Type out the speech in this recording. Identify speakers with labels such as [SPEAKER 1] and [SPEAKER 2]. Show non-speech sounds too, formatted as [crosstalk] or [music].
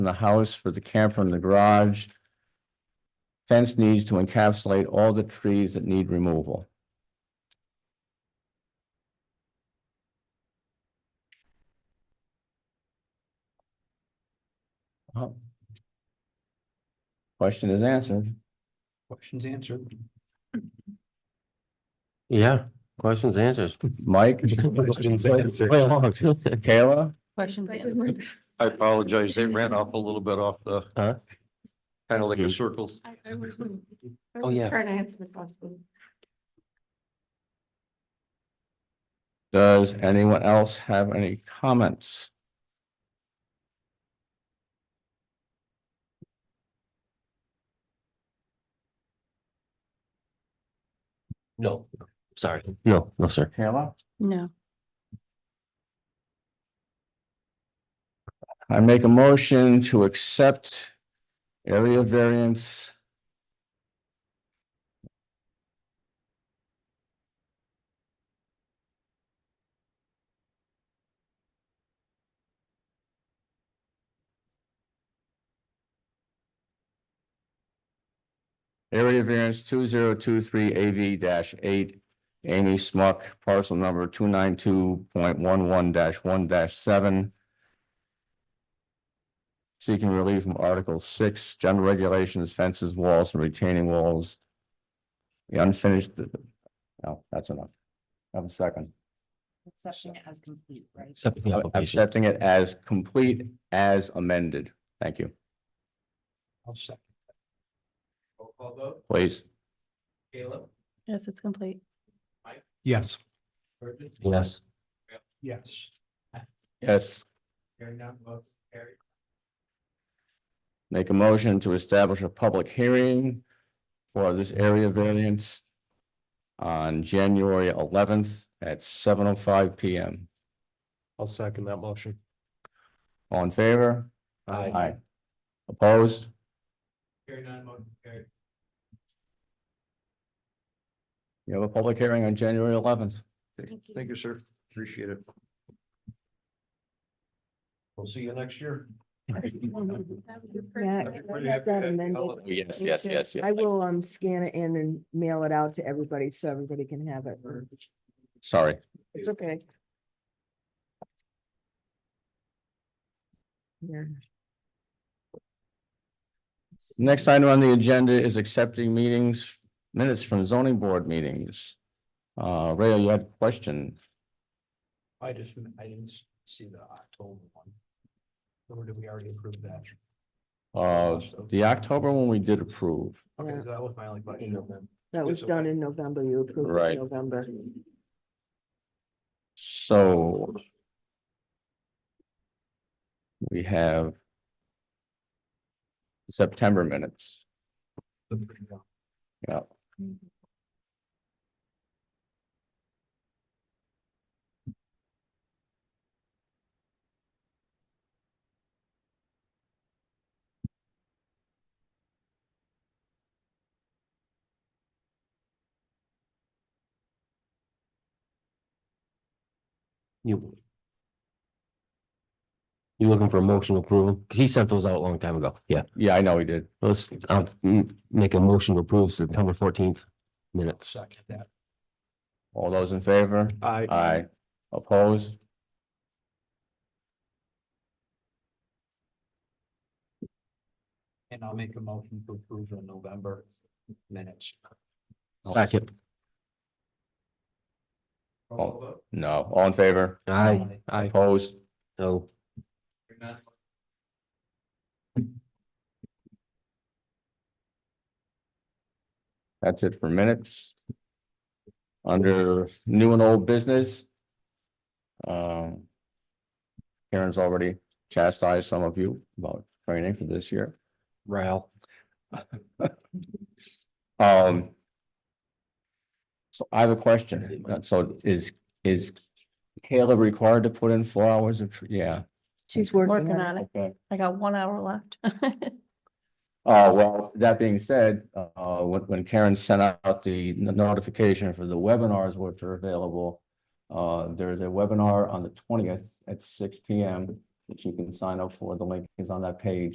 [SPEAKER 1] from the house for the camper in the garage. Fence needs to encapsulate all the trees that need removal. Oh. Question is answered.
[SPEAKER 2] Questions answered.
[SPEAKER 3] Yeah, questions, answers.
[SPEAKER 1] Mike,
[SPEAKER 2] Questions answered.
[SPEAKER 3] Way [laughs] along.
[SPEAKER 1] Kayla,
[SPEAKER 4] Questions answered.
[SPEAKER 5] I apologize, they ran off a little bit off the,
[SPEAKER 3] Huh?
[SPEAKER 5] kind of like
[SPEAKER 3] Hmm.
[SPEAKER 5] a circle.
[SPEAKER 4] I- I was- I
[SPEAKER 3] Oh,
[SPEAKER 4] was
[SPEAKER 3] yeah.
[SPEAKER 4] Trying to answer the question.
[SPEAKER 1] does anyone else have any comments?
[SPEAKER 3] No, sorry. No, no, sir.
[SPEAKER 1] Kayla?
[SPEAKER 4] No.
[SPEAKER 1] I make a motion to accept area variance. Area variance two zero two three AV eight, Amy Smuck, parcel number two nine two point one one one seven seeking relief from Article six, general regulations, fences, walls, and retaining walls. The unfinished, no, that's enough. Have a second.
[SPEAKER 6] Accepting it as complete, right?
[SPEAKER 3] Accepting the application.
[SPEAKER 1] Accepting it as complete as amended. Thank you.
[SPEAKER 2] I'll second. Roll call vote,
[SPEAKER 1] Please.
[SPEAKER 2] Caleb?
[SPEAKER 4] Yes, it's complete.
[SPEAKER 2] Yes.
[SPEAKER 3] Yes.
[SPEAKER 2] Yes.
[SPEAKER 1] Yes.
[SPEAKER 2] Hearing none, vote carried.
[SPEAKER 1] Make a motion to establish a public hearing for this area variance on January eleventh at seven oh five P M.
[SPEAKER 2] I'll second that motion.
[SPEAKER 1] All in favor? Aye. Opposed?
[SPEAKER 2] Hearing none, motion carried.
[SPEAKER 1] You have a public hearing on January eleventh.
[SPEAKER 4] Thank you.
[SPEAKER 5] Thank you, sir. Appreciate it.
[SPEAKER 2] We'll see you next year.
[SPEAKER 7] Matt,
[SPEAKER 2] That'd be
[SPEAKER 7] I
[SPEAKER 2] pretty
[SPEAKER 7] have that
[SPEAKER 2] epic.
[SPEAKER 7] amended.
[SPEAKER 2] Hell,
[SPEAKER 1] Oh, Yes,
[SPEAKER 7] Me
[SPEAKER 1] yes,
[SPEAKER 7] too.
[SPEAKER 1] yes, yes.
[SPEAKER 7] I will um scan it in and mail it out to everybody so everybody can have it.
[SPEAKER 1] Sorry.
[SPEAKER 7] It's okay. Yeah.
[SPEAKER 1] Next item on the agenda is accepting meetings, minutes from zoning board meetings. Uh, Ray, you had a question?
[SPEAKER 2] I just, I didn't s- see the October one. Or did we already approve that?
[SPEAKER 1] Uh, the October one we did approve.
[SPEAKER 2] Okay,
[SPEAKER 7] Yeah.
[SPEAKER 2] so that was my only question.
[SPEAKER 7] That was done in November. You approved it
[SPEAKER 1] Right.
[SPEAKER 7] in November.
[SPEAKER 1] So we have September minutes. Yeah.
[SPEAKER 3] You. You looking for a motion to approve? Because he sent those out a long time ago. Yeah,
[SPEAKER 1] Yeah, I know we did.
[SPEAKER 3] let's, I'll mm, make a motion to approve September fourteenth minutes.
[SPEAKER 2] Second that.
[SPEAKER 1] All those in favor?
[SPEAKER 2] I.
[SPEAKER 1] Aye. Opposed?
[SPEAKER 2] And I'll make a motion to approve the November minutes.
[SPEAKER 3] Second.
[SPEAKER 2] Roll call vote.
[SPEAKER 1] No. All in favor?
[SPEAKER 3] Aye. Aye.
[SPEAKER 1] Opposed?
[SPEAKER 3] No.
[SPEAKER 2] Hearing none,
[SPEAKER 1] That's it for minutes. Under new and old business. Um. Karen's already chastised some of you about training for this year.
[SPEAKER 3] Ral.
[SPEAKER 1] Um. So I have a question. Uh, So is, is Caleb required to put in four hours of, tr- yeah?
[SPEAKER 7] She's working
[SPEAKER 4] Working
[SPEAKER 7] on it.
[SPEAKER 4] on it.
[SPEAKER 1] Okay.
[SPEAKER 4] I got one hour left. [laughs]
[SPEAKER 1] Oh, well, that being said, uh, when, when Karen sent out the notification for the webinars which are available. Uh, there is a webinar on the twentieth at six P M that you can sign up for. The link is on that page.